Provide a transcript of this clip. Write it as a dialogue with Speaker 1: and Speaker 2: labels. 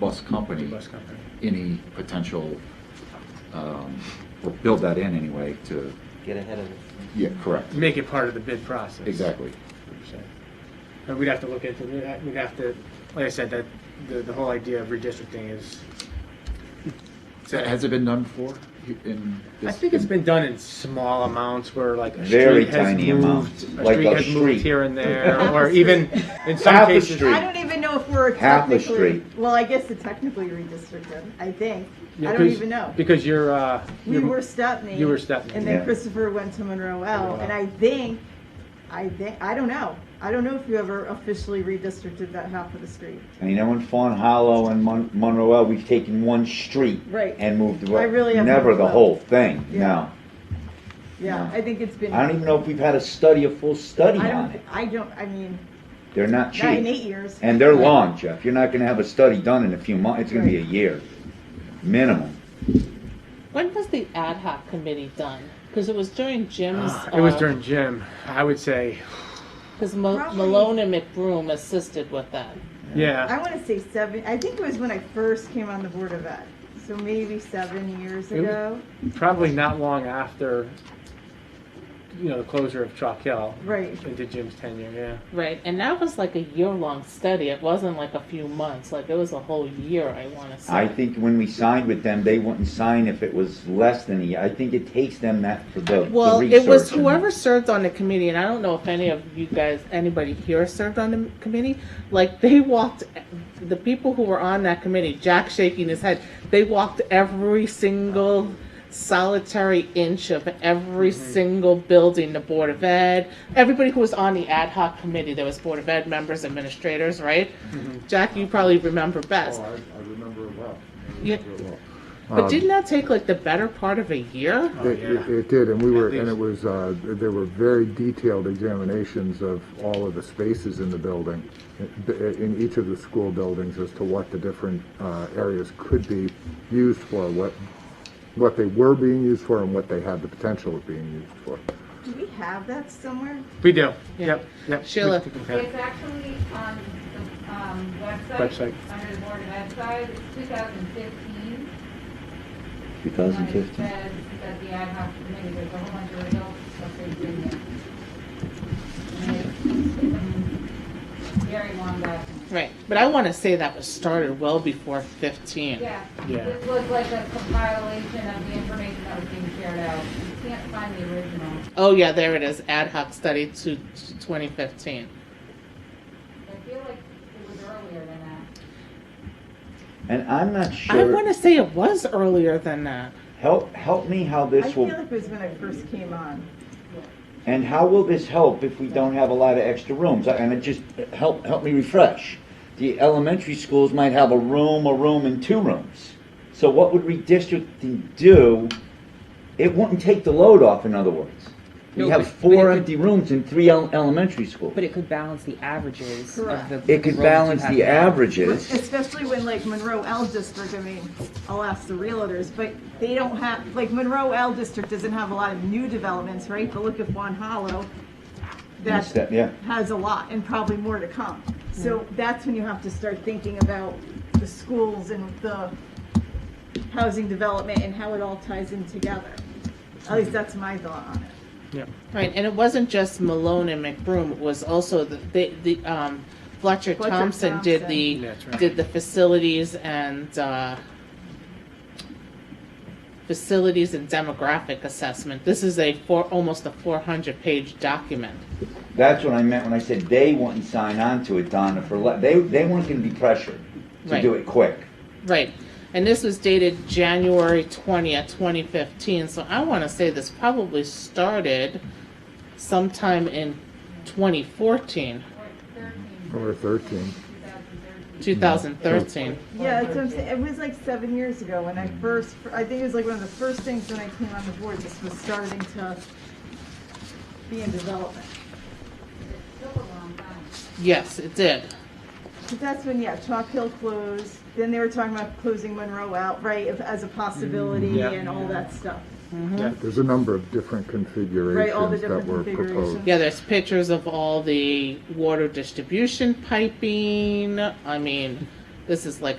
Speaker 1: bus company
Speaker 2: bus company.
Speaker 1: any potential, um, or build that in anyway to,
Speaker 3: Get ahead of it.
Speaker 1: yeah, correct,
Speaker 2: Make it part of the bid process.
Speaker 1: exactly.
Speaker 2: So, uh, We'd have to look into, that. we'd have to, like I said, that, the, the whole idea of redistricting is,
Speaker 1: So Has it been done before? in
Speaker 2: I
Speaker 1: this-
Speaker 2: think it's been done in small amounts where like a
Speaker 3: Very
Speaker 2: street has
Speaker 3: tiny
Speaker 2: moved,
Speaker 3: amount,
Speaker 2: a
Speaker 3: like
Speaker 2: street
Speaker 3: a
Speaker 2: has moved
Speaker 3: street.
Speaker 2: here and there, or even in some
Speaker 3: Half a
Speaker 2: cases.
Speaker 3: street.
Speaker 4: I don't even know if we're
Speaker 3: Half the
Speaker 4: technically,
Speaker 3: street.
Speaker 4: well, I guess it technically redistricted, I think.
Speaker 2: Yeah,
Speaker 4: I don't
Speaker 2: 'cause-
Speaker 4: even know.
Speaker 2: Because you're, uh.
Speaker 4: We
Speaker 2: you're-
Speaker 4: were Stepney.
Speaker 2: you were Stepney,
Speaker 4: And
Speaker 3: yeah.
Speaker 4: then Christopher went to Monroe L, and I think, I think, I don't know. I don't know if you ever officially redistricted that half of the street.
Speaker 3: I mean, know in Fawn Hollow and Mon- Monroe, we've taken one street.
Speaker 4: Right.
Speaker 3: And moved the.
Speaker 4: I really have
Speaker 3: Never
Speaker 4: moved
Speaker 3: the
Speaker 4: well.
Speaker 3: whole thing,
Speaker 4: Yeah.
Speaker 3: no.
Speaker 4: Yeah,
Speaker 3: No.
Speaker 4: I think it's been.
Speaker 3: I don't even know if we've had a study, a full study
Speaker 4: I
Speaker 3: on
Speaker 4: don't,
Speaker 3: it.
Speaker 4: I don't, I mean,
Speaker 3: They're not
Speaker 4: not in
Speaker 3: cheap.
Speaker 4: eight years.
Speaker 3: And they're long, Jeff. You're not gonna have a study done in a few months. It's gonna be a year, minimum.
Speaker 5: When was the ad hoc committee done? Because it was during Jim's.
Speaker 2: uh, Ah,
Speaker 5: uh,
Speaker 2: It
Speaker 4: uh,
Speaker 2: was during gym, I would say,
Speaker 5: Because Mo-
Speaker 4: Probably-
Speaker 5: Malone and McBroom assisted with that.
Speaker 2: yeah,
Speaker 4: I want to say seven, I think it was when I first came on the Board of Ed. So maybe seven years
Speaker 2: It was-
Speaker 4: ago.
Speaker 2: probably not long after, you know, the closure of Chalk Hill
Speaker 4: Right.
Speaker 2: into Jim's tenure, yeah.
Speaker 5: Right, and that was like a year-long study. It wasn't like a few months. Like it was a whole year. I want to say.
Speaker 3: I think when we signed with them, they wouldn't sign if it was less than a year. I think it takes them that for the the
Speaker 5: Well, it was
Speaker 3: research and-
Speaker 5: whoever served on the committee, and I don't know if any of you guys, anybody here served on the committee. Like, they walked, the people who were on that committee, Jack shaking his head, they walked every single solitary inch of every
Speaker 3: Mm-hmm.
Speaker 5: single building, the Board of Ed, everybody who was on the ad hoc committee, there was Board of Ed members, administrators, right?
Speaker 3: Mm-hmm.
Speaker 5: Jack, you probably remember best.
Speaker 3: Oh,
Speaker 6: I, I remember it well.
Speaker 5: Yeah.
Speaker 6: well.
Speaker 3: Um,
Speaker 5: But didn't that take like the better part of a year?
Speaker 6: It, it- it did, and we were, and it was, uh, there were very detailed examinations of all of the spaces in the building, i- in each of the school buildings, as to what the different uh, areas could be used for, what, what they were being used for, and what they had the potential of being used for.
Speaker 4: Do we have that somewhere?
Speaker 2: We do,
Speaker 5: Yeah.
Speaker 2: yep, yep.
Speaker 5: Sheila.
Speaker 7: It's actually on the um, website,
Speaker 2: Website.
Speaker 7: under the board website, it's 2015. And it
Speaker 3: 2015.
Speaker 7: says that the ad hoc committee, there's a whole bunch of results that they bring in. And it's Very long document.
Speaker 5: Right, but I want to say that was started well before 15.
Speaker 7: Yeah,
Speaker 2: Yeah.
Speaker 7: this was like a compilation of the information that was being shared out. You can't find the original.
Speaker 5: Oh, yeah, there it is. Ad hoc study to to 2015.
Speaker 7: I feel like it was earlier than that.
Speaker 3: And I'm not
Speaker 5: I want
Speaker 3: sure,
Speaker 5: to say it was earlier than that.
Speaker 3: help, help me how
Speaker 4: I
Speaker 3: this
Speaker 4: feel
Speaker 3: will,
Speaker 4: like it was when I first came on.
Speaker 3: and how will this help if we don't have a lot of extra rooms? I- And it just, help, help me refresh. The elementary schools might have a room, a room, and two rooms. So what would redistricting do? It wouldn't take the load off, in other words. We
Speaker 8: No,
Speaker 3: have
Speaker 8: but- but it
Speaker 3: four
Speaker 8: would-
Speaker 3: empty rooms in three el- elementary schools.
Speaker 8: But it could balance the averages of
Speaker 4: Correct.
Speaker 8: the.
Speaker 3: It
Speaker 8: roles
Speaker 3: could
Speaker 8: you
Speaker 3: balance
Speaker 8: have
Speaker 3: the
Speaker 8: now.
Speaker 3: averages.
Speaker 4: Especially when like Monroe L district, I mean, I'll ask the realtors, but they don't have, like Monroe L district doesn't have a lot of new developments, right? But look at Juan Hollow. That
Speaker 3: That- Yeah.
Speaker 4: has a lot and probably more to come. So that's when you have to start thinking about the schools and the housing development and how it all ties in together. At least that's my thought on it.
Speaker 5: Right, and it wasn't just Malone and McBroom. It was also the, the, the um, Fletcher,
Speaker 4: Fletcher
Speaker 5: Thompson, did the
Speaker 2: Thompson. That's right.
Speaker 5: did the facilities and uh, facilities and demographic assessment. This is a four almost a 400 page document.
Speaker 3: That's what I meant when I said they wouldn't sign on to it, Donna, for, le- they, they weren't gonna be pressured to do
Speaker 5: Right.
Speaker 3: it quick.
Speaker 5: Right. And this was dated January 20th, 2015. So I want to say this probably started sometime in 2014,
Speaker 6: Or
Speaker 7: Or 13,
Speaker 6: 13.
Speaker 7: 2013.
Speaker 5: 2013.
Speaker 4: Yeah, that's what I'm saying. It was like seven years ago when I first, I think it was like one of the first things when I came on the board, this was starting to be in development.
Speaker 7: Took a long time.
Speaker 5: Yes, it did.
Speaker 4: But that's when, yeah, Chalk Hill closed, then they were talking about closing Monroe out, right, if- as a possibility
Speaker 2: yeah.
Speaker 4: and all that stuff.
Speaker 6: There's a number of different
Speaker 4: Right, all the
Speaker 6: configurations that
Speaker 4: different
Speaker 6: were proposed.
Speaker 4: configurations.
Speaker 5: Yeah, there's pictures of all the water distribution piping. I mean, this is like